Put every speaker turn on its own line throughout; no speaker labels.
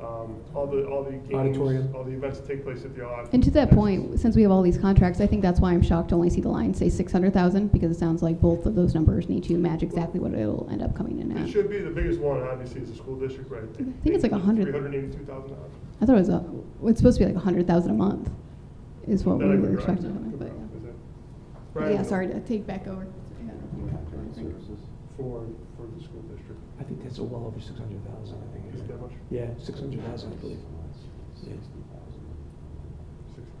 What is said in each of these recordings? um, all the, all the games,
Auditorium.
all the events that take place at the odd.
And to that point, since we have all these contracts, I think that's why I'm shocked to only see the line say six hundred thousand, because it sounds like both of those numbers need to match exactly what it'll end up coming in
It
at.
should be, the biggest one obviously is the school district, right? I
think it's like a hundred.
Three hundred eighty-two thousand dollars.
I thought it was, a- it's supposed to be like a hundred thousand a month, is what we were expecting, but, yeah. But yeah, sorry to take back over.
For, for the school district,
I think that's a well over six hundred thousand, I think.
is it that much?
Yeah, six hundred thousand, I believe. Yeah.
Six thousand.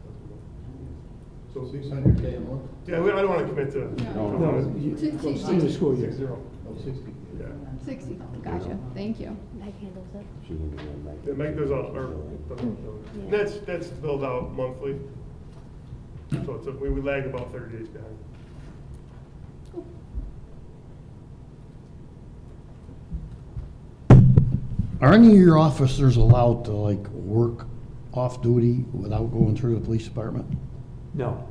So,
Six hundred K a month?
yeah, we- I don't want to commit to.
No.
No, you-
Six- six-
in the school year.
Six zero,
Oh, sixty.
yeah.
Sixty, gotcha, thank you.
Meg handles it.
Yeah, Meg does all, or, and that's, that's billed out monthly. So it's, a- we would lag about thirty days behind.
Are any of your officers allowed to like work off-duty without going through the police department?
No,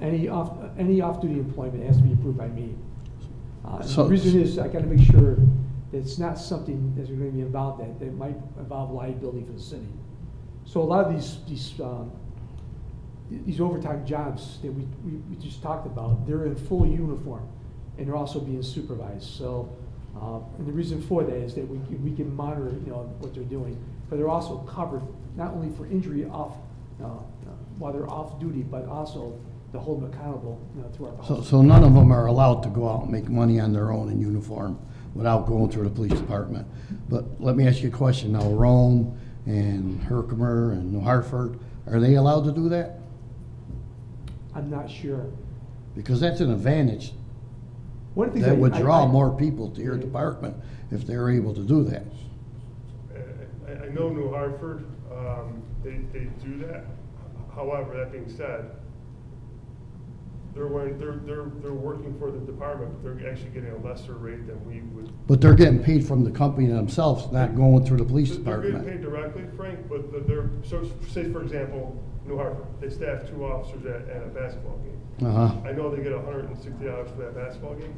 any off, any off-duty employment has to be approved by me. Uh, The
So-
reason is, I gotta make sure that it's not something that's gonna be involved that, that might involve liability for the city. So a lot of these, these, um, th- these overtime jobs that we, we, we just talked about, they're in full uniform, and they're also being supervised, so, uh, and the reason for that is that we, can- we can monitor, you know, what they're doing, but they're also covered, not only for injury off, uh, uh, while they're off duty, but also to hold them accountable, you know, throughout the
So,
whole.
so none of them are allowed to go out and make money on their own in uniform without going through the police department. But let me ask you a question now, Rome and Herkimer and New Hartford, are they allowed to do that?
I'm not sure.
Because that's an advantage.
One of the things
That
I-
would
I-
draw
I-
more people to your department if they're able to do that.
I, I- I know New Hartford, um, they, they do that. However, that being said, they're, wearing- they're, they're, they're working for the department, but they're actually getting a lesser rate than we would.
But they're getting paid from the company themselves, not going through the police
They're getting
department.
paid directly, Frank, but they're- they're, so, say for example, New Hartford, they staff two officers at, at a basketball game.
Uh-huh.
I know they get hundred and sixty dollars for that basketball game.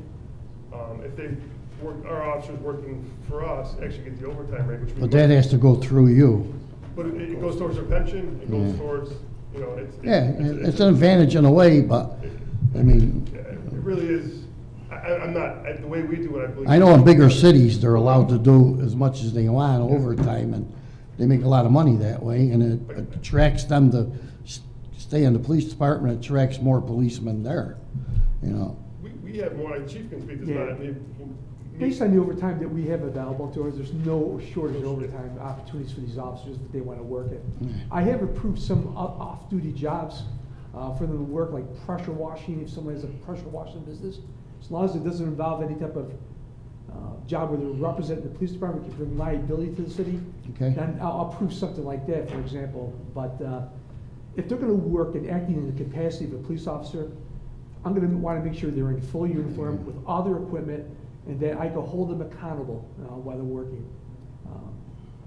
Um, if they work, our officers working for us actually get the overtime rate, which we.
But that has to go through you.
But it, it goes towards their pension, it goes
Yeah.
towards, you know, it's.
Yeah, it- it's an advantage in a way, but, I mean,
Yeah, It really is, I, I- I'm not, I- the way we do it, I believe.
I know in bigger cities, they're allowed to do as much as they want overtime, and they make a lot of money that way, and it attracts them to s- stay in the police department, attracts more policemen there, you know.
We, we have more, and Chief can speak to this,
Yeah.
but I mean. he-
Based on the overtime that we have available to us, there's no shortage of overtime opportunities for these officers that they want to work at. I have approved some o- off-duty jobs uh, for them to work, like pressure washing, if someone has a pressure washing business. As long as it doesn't involve any type of uh, job where they're representing the police department, can bring liability to the city.
Okay.
Then I'll I'll approve something like that, for example, but uh, if they're going to work and acting in the capacity of a police officer, I'm gonna wanna make sure they're in full uniform with all their equipment, and that I can hold them accountable, uh, while they're working. Um,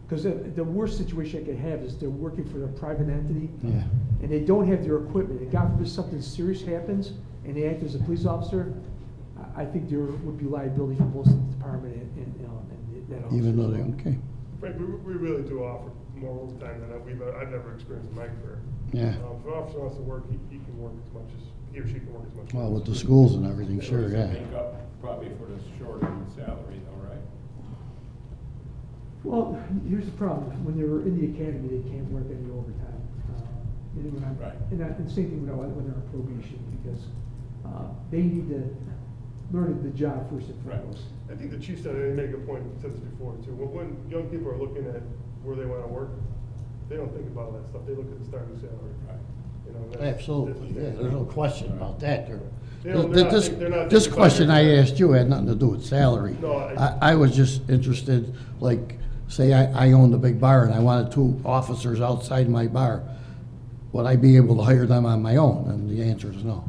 Cause the, the worst situation I could have is they're working for a private entity,
Yeah.
and they don't have their equipment, and God forbid something serious happens, and they act as a police officer, I, I think there would be liability for both the department and, and, you know, and that officer.
Even though
as
they,
well.
okay,
Frank, we, we really do offer more overtime than I- we've, I've never experienced in my career.
yeah.
Um, If an officer wants to work, he, he can work as much as, he or she can work as much. as-
Well, with the schools and everything, sure,
Doesn't
yeah.
Make up probably for the shorter in salary though, right?
Well, here's the problem, when they're in the academy, they can't work any overtime. Uh, And when I'm,
Right.
and I, and same thing when I, when they're on probation, because, uh, they need to learn the job first and
Right.
foremost.
I think the chief said, and he made a good point, he said this before too, when, when young people are looking at where they wanna work, they don't think about all that stuff, they look at the starting salary,
Right.
you know. that's- that's-
Absolutely, yeah, there's no question about that. There-
They don't- they're not
This,
think- they're not
this
thinking about
question
your-
I asked you had nothing to do with salary.
No, I-
I, I was just interested, like, say I, I owned a big bar and I wanted two officers outside my bar. Would I be able to hire them on my own? And the answer is no.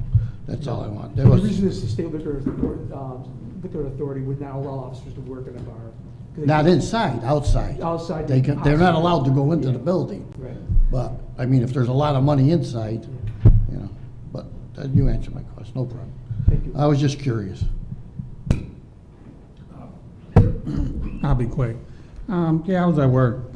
That's all I want. That
The
was,
reason is the state liquor, author- um, liquor authority would not allow officers to work in a bar. 'Cause they
not
can't-
inside, outside.
Outside.
They can, they're not allowed to go into the
Yeah.
building.
Right.
But, I mean, if there's a lot of money inside, you know, but uh, you answered my question, no problem.
Thank you.
I was just curious.
I'll be quick. Um, the hours I work,